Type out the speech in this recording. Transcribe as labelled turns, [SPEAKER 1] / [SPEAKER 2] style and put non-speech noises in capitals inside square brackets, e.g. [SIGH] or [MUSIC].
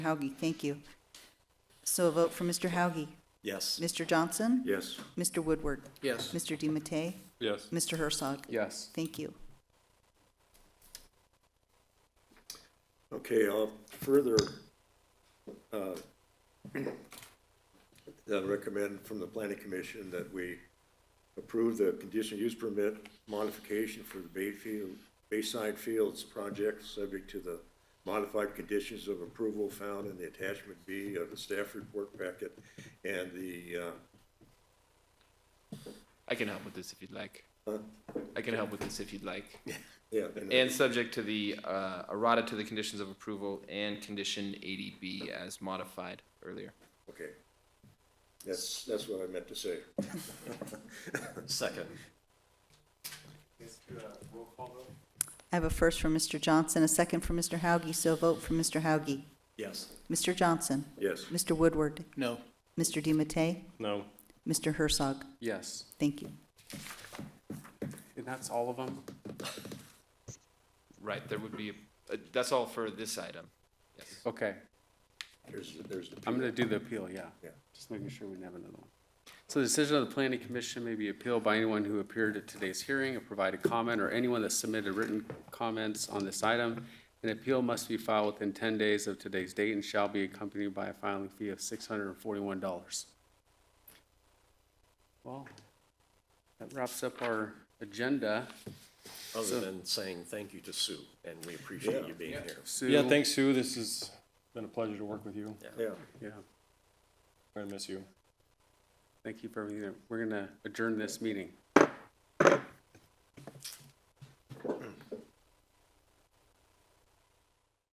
[SPEAKER 1] Hauge, thank you. So a vote for Mr. Hauge.
[SPEAKER 2] Yes.
[SPEAKER 1] Mr. Johnson?
[SPEAKER 2] Yes.
[SPEAKER 1] Mr. Woodward?
[SPEAKER 3] Yes.
[SPEAKER 1] Mr. DiMattei?
[SPEAKER 3] Yes.
[SPEAKER 1] Mr. Herzog?
[SPEAKER 3] Yes.
[SPEAKER 1] Thank you.
[SPEAKER 2] Okay, I'll further uh, [CLEARS THROAT] uh, recommend from the planning commission that we approve the conditional use permit modification for the Bayfield, Bayside Fields project, subject to the modified conditions of approval found in the attachment B of the staff report packet and the, uh,
[SPEAKER 4] I can help with this if you'd like. I can help with this if you'd like.
[SPEAKER 2] yeah.
[SPEAKER 4] And subject to the, uh, errata to the conditions of approval and condition eighty B as modified earlier.
[SPEAKER 2] Okay. That's, that's what I meant to say. Second.
[SPEAKER 1] I have a first from Mr. Johnson, a second from Mr. Hauge, so a vote for Mr. Hauge.
[SPEAKER 2] Yes.
[SPEAKER 1] Mr. Johnson?
[SPEAKER 2] Yes.
[SPEAKER 1] Mr. Woodward?
[SPEAKER 3] No.
[SPEAKER 1] Mr. DiMattei?
[SPEAKER 3] No.
[SPEAKER 1] Mr. Herzog?
[SPEAKER 3] Yes.
[SPEAKER 1] Thank you.
[SPEAKER 3] And that's all of them?
[SPEAKER 4] Right, there would be, uh, that's all for this item. Yes.
[SPEAKER 3] Okay.
[SPEAKER 2] There's, there's the.
[SPEAKER 3] I'm gonna do the appeal, yeah.
[SPEAKER 2] Yeah.
[SPEAKER 3] Just making sure we didn't have another one. So the decision of the planning commission may be appealed by anyone who appeared at today's hearing or provided comment, or anyone that submitted written comments on this item. An appeal must be filed within ten days of today's date and shall be accompanied by a filing fee of six hundred and forty-one dollars. Well, that wraps up our agenda.
[SPEAKER 5] other than saying thank you to Sue, and we appreciate you being here.
[SPEAKER 3] Sue?
[SPEAKER 6] Yeah, thanks, Sue. This has been a pleasure to work with you.
[SPEAKER 2] Yeah.
[SPEAKER 3] Yeah.
[SPEAKER 6] I miss you.
[SPEAKER 3] Thank you for everything. We're gonna adjourn this meeting.